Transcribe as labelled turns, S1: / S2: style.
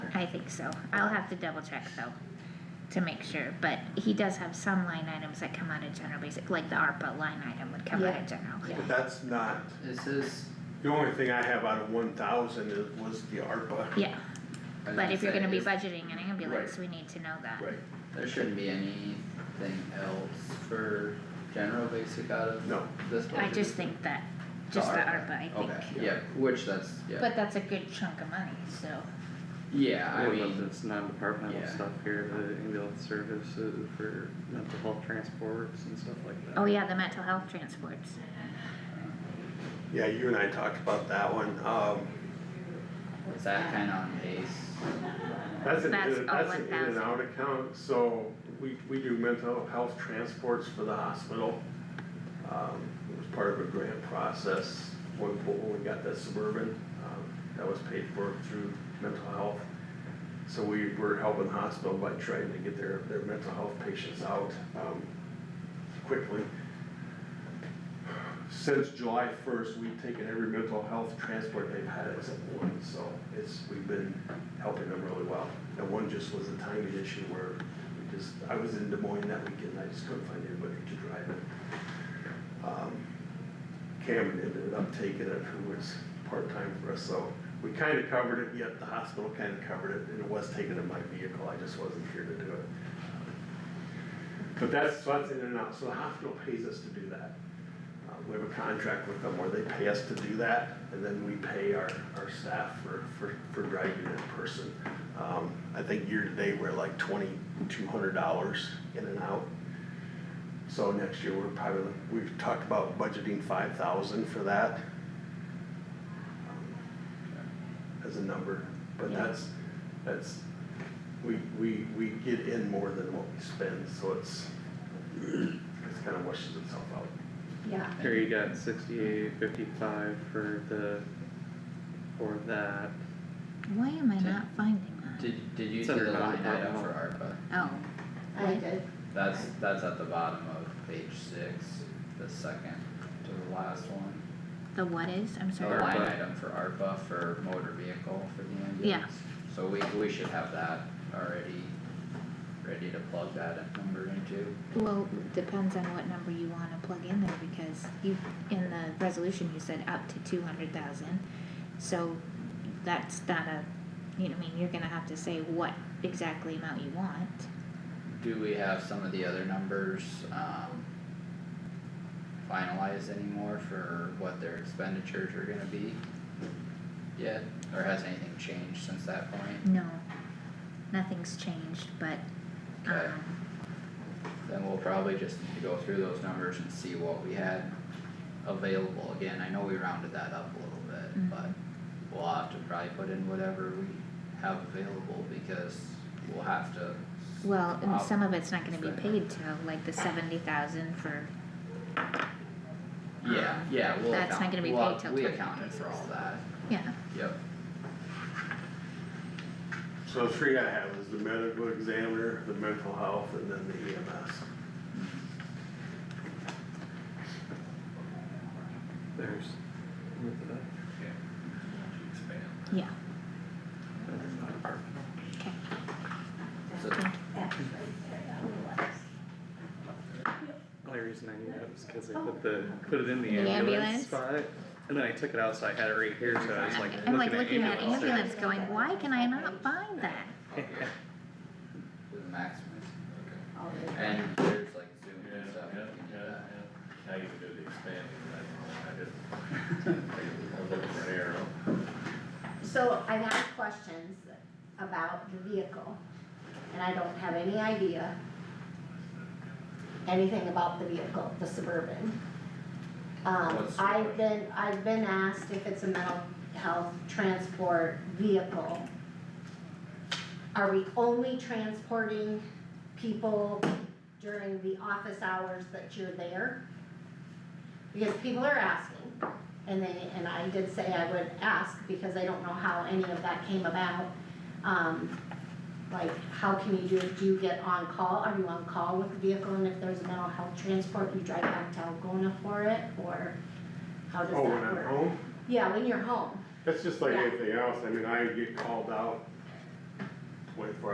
S1: I think so. I'll have to double check though, to make sure, but he does have some line items that come out of general basic, like the ARPA line item would come out
S2: Yeah.
S1: of general.
S2: Yeah.
S3: But that's not,
S4: This is,
S3: the only thing I have out of one thousand is, was the ARPA.
S1: Yeah,
S4: I was
S1: but if you're
S4: say,
S1: gonna be
S4: is-
S1: budgeting an ambulance,
S3: Right.
S1: we need to know that.
S3: Right,
S4: There shouldn't be anything else for general basic out of
S3: no,
S4: this budget.
S1: I just think that, just the ARPA, I think.
S4: Okay, yeah, which that's, yeah,
S1: But that's a good chunk of money, so,
S4: yeah, I
S5: Yeah,
S4: mean.
S5: but that's non-departmental
S4: yeah.
S5: stuff here, the ambulance services for mental health transports and stuff like that.
S1: oh yeah, the mental health transports.
S3: yeah, you and I talked about that one, um,
S4: Is that kinda on pace?
S3: that's an,
S1: That's
S3: in-
S1: a
S3: that's an in and
S1: 1,000.
S3: out account, so we, we do mental health transports for the hospital. Um, it was part of a grant process, when, when we got that suburban, um, that was paid for through mental health. So we were helping the hospital by trying to get their, their mental health patients out, um, quickly. Since July first, we've taken every mental health transport they've had except one, so it's, we've been helping them really well. And one just was a timing issue where we just, I was in Des Moines that weekend, I just couldn't find anybody to drive it. Um, Cameron ended up taking it, who was part-time for us, so we kinda covered it, yet the hospital kinda covered it, and it was taken in my vehicle, I just wasn't here to do it. But that's, so that's in and out, so the hospital pays us to do that. Uh, We have a contract with them where they pay us to do that, and then we pay our, our staff for, for, for driving in person. Um, I think year-to-date, we're like twenty-two hundred dollars in and out. So next year, we're probably, we've talked about budgeting five thousand for that. um, As a number, but
S1: Yeah.
S3: that's, that's, we, we, we get in more than what we spend, so it's, it's kinda washes itself out.
S2: Yeah.
S5: Here you got sixty-eight fifty-five for the, for that,
S1: Why am I not finding that?
S4: Did, did you
S5: It's
S4: do
S5: under
S4: the line item
S5: non-departmental.
S4: for ARPA?
S1: Oh,
S2: I did,
S4: That's, that's at the bottom of page six, the second to the last one.
S1: the what is, I'm
S4: The
S1: sorry.
S2: Uh,
S5: Or-
S4: line
S5: ARPA.
S4: item for ARPA for motor vehicle for the ambulance.
S1: Yeah.
S4: So we, we should have that already, ready to plug that number into.
S1: Well, depends on what number you wanna plug in there, because you, in the resolution, you said up to two hundred thousand. So that's not a, you know, I mean, you're gonna have to say what exactly amount you want.
S4: Do we have some of the other numbers, um, finalized anymore for what their expenditures are gonna be? Yet, or has anything changed since that point?
S1: No, nothing's changed, but,
S4: Okay.
S1: um,
S4: Then we'll probably just need to go through those numbers and see what we had available again, I know we rounded that up a little bit,
S1: Mhm.
S4: but we'll have to probably put in whatever we have available because we'll have to.
S1: well, and
S4: Wow.
S1: some of it's not gonna be
S4: Spend.
S1: paid till, like, the seventy thousand for,
S4: Yeah,
S1: um,
S4: yeah, we'll
S1: that's not
S4: account,
S1: gonna be
S4: we'll-
S1: paid till
S4: we
S1: 20
S4: accounted for all that,
S1: yeah,
S4: yep,
S3: So the three I have is the medical examiner, the mental health, and then the E EMS.
S5: there's.
S1: yeah,
S5: Departmental.
S1: okay.
S4: so
S5: Only reason I knew that was cause I put the, put it in the ambulance
S1: Oh, ambulance?
S5: spot, and then I took it out, so I had it right here, so I was like
S1: I'm like
S5: looking at
S1: looking at
S5: ambulance.
S1: ambulance going, why can I not find that?
S4: the maximum,
S2: all good.
S4: and there's like Zoom
S6: Yeah,
S4: and stuff.
S6: yeah,
S4: we can do
S6: yeah,
S4: that.
S6: yeah. Now you can do the expanding, I, I just, I was looking for an arrow.
S2: So I've had questions about the vehicle, and I don't have any idea anything about the vehicle, the Suburban. Um,
S4: What's the
S2: I've been, I've been asked if it's a mental health transport vehicle. Are we only transporting people during the office hours that you're there? Because people are asking. And they, and I did say I would ask because I don't know how any of that came about. Um, like, how can you do, do you get on call, are you on call with the vehicle and if there's a mental health transport, you drive down to Algona for it, or how does that
S3: Oh,
S2: work?
S3: when I'm home,
S2: Yeah, when you're home,
S3: that's just like anything else, I mean, I get called out